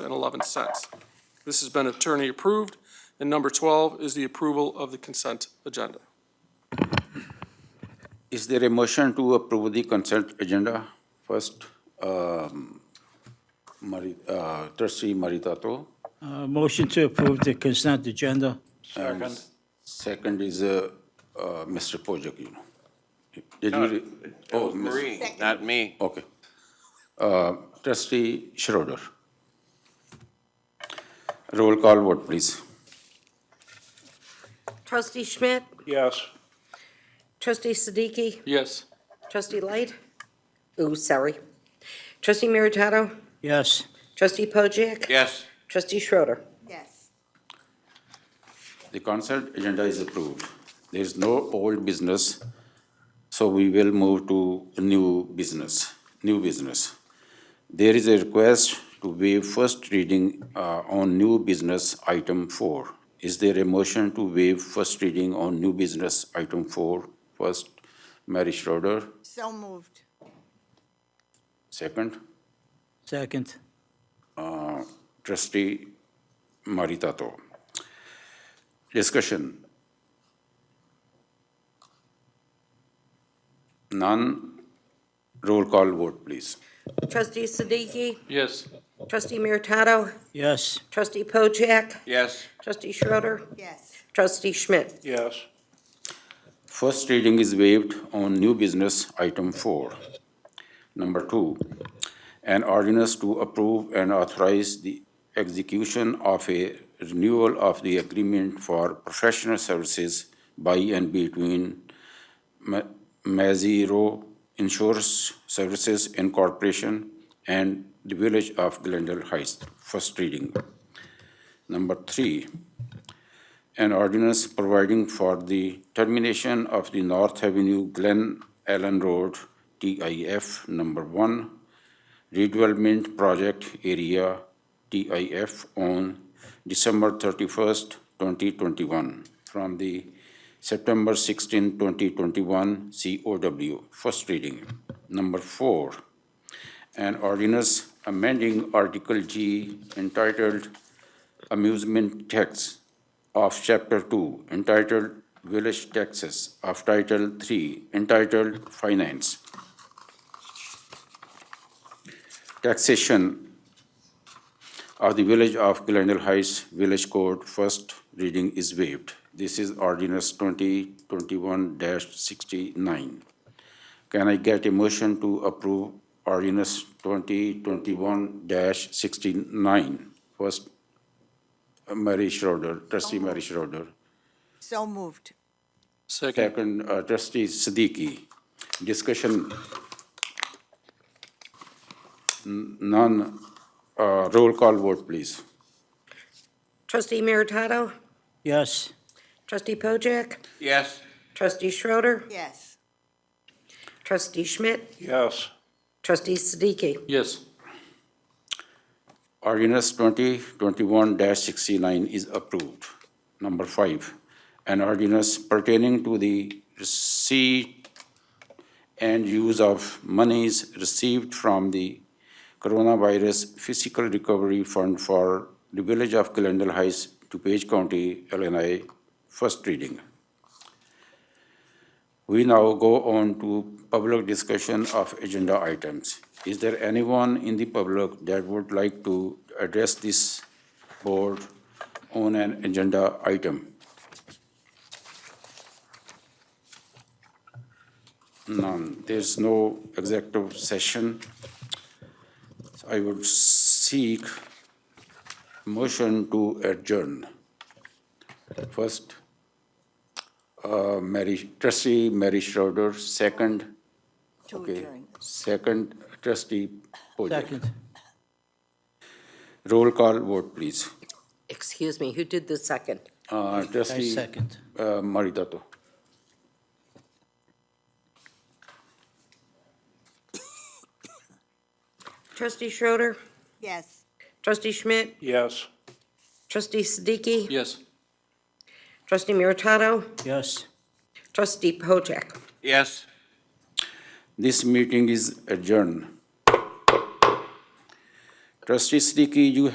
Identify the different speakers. Speaker 1: $1,000,000.11. This has been attorney-approved. And number 12 is the approval of the consent agenda.
Speaker 2: Is there a motion to approve the consent agenda? First, um, Mari- uh, trustee Maritato.
Speaker 3: Uh, Motion to approve the consent agenda.
Speaker 2: Second. Second is uh, uh, Mr. Pojek, you know. Did you? re- Oh, Ms.
Speaker 4: Marie, not me.
Speaker 2: Okay. Uh, Trustee Schroeder. Roll call vote, please.
Speaker 5: Trustee Schmidt?
Speaker 6: Yes.
Speaker 5: Trustee Siddiqui?
Speaker 1: Yes.
Speaker 5: Trustee Light? Ooh, sorry. Trustee Meritato?
Speaker 3: Yes.
Speaker 5: Trustee Pojek?
Speaker 4: Yes,
Speaker 5: Trustee Schroeder.
Speaker 7: yes,
Speaker 2: The consent agenda is approved. There is no old business, so we will move to new business, new business. There is a request to waive first reading uh, on new business item four. Is there a motion to waive first reading on new business item four? First, Mary Schroeder,
Speaker 7: so moved,
Speaker 2: second,
Speaker 3: Second.
Speaker 2: trustee Maritato. तो। Discussion. None. Roll call vote, please.
Speaker 5: Trustee Siddiqui?
Speaker 1: Yes.
Speaker 5: Trustee Meritato?
Speaker 3: Yes.
Speaker 5: Trustee Pojek?
Speaker 4: yes,
Speaker 5: Trustee Schroeder.
Speaker 7: yes,
Speaker 5: Trustee Schmidt?
Speaker 6: Yes.
Speaker 2: First reading is waived on new business item four. Number two, an ordinance to approve and authorize the execution of a renewal of the agreement for professional services by and between Ma- Maziro Insurance Services Incorporation and the Village of Glendale Heights. First reading. Number three, an ordinance providing for the termination of the North Avenue Glen Allen Road, TIF number one, redevelopment project area, TIF, on December thirty-first, twenty twenty-one, from the September 16, 2021 COW, first reading. Number four, an ordinance amending Article G entitled Amusement Tax of Chapter 2 entitled Village Taxes of Title 3 entitled Finance. Taxation of the Village of Glendale Heights Village Code, first reading is waived. This is ordinance 2021-69. Can I get a motion to approve ordinance 2021-69? First, Mary Schroeder, trustee Mary Schroeder.
Speaker 7: so moved,
Speaker 1: Second.
Speaker 2: Second, uh, trustee Siddiqui. Discussion. N- None. Uh, Roll call vote, please.
Speaker 5: Trustee Meritato?
Speaker 3: Yes.
Speaker 5: Trustee Pojek?
Speaker 4: yes,
Speaker 5: Trustee Schroeder.
Speaker 7: yes,
Speaker 5: Trustee Schmidt?
Speaker 6: Yes.
Speaker 5: Trustee Siddiqui?
Speaker 1: Yes.
Speaker 2: Ordinance twenty twenty-one sixty-nine is approved. Number five, an ordinance pertaining to the receipt and use of monies received from the Coronavirus Physical Recovery Fund for the Village of Glendale Heights, DuPage County, Illinois, first reading. We now go on to public discussion of agenda items. Is there anyone in the public that would like to address this board on an agenda item? None. There's no executive session. So I would seek motion to adjourn. First, uh, Mary, trustee Mary Schroeder, second,
Speaker 7: to
Speaker 2: okay,
Speaker 7: adjourn,
Speaker 2: second trustee Pojek.
Speaker 3: Second.
Speaker 2: Roll call vote, please.
Speaker 5: Excuse me, who did the second?
Speaker 2: Uh,
Speaker 3: I
Speaker 2: Trustee
Speaker 3: second.
Speaker 2: uh, Maritato.
Speaker 5: Trustee Schroeder.
Speaker 7: yes.
Speaker 5: Trustee Schmidt?
Speaker 6: Yes.
Speaker 5: Trustee Siddiqui?
Speaker 1: Yes.
Speaker 5: Trustee Meritato?
Speaker 3: Yes.
Speaker 5: Trustee Pojek?
Speaker 4: yes.
Speaker 2: This meeting is adjourned. Trustee Siddiqui, you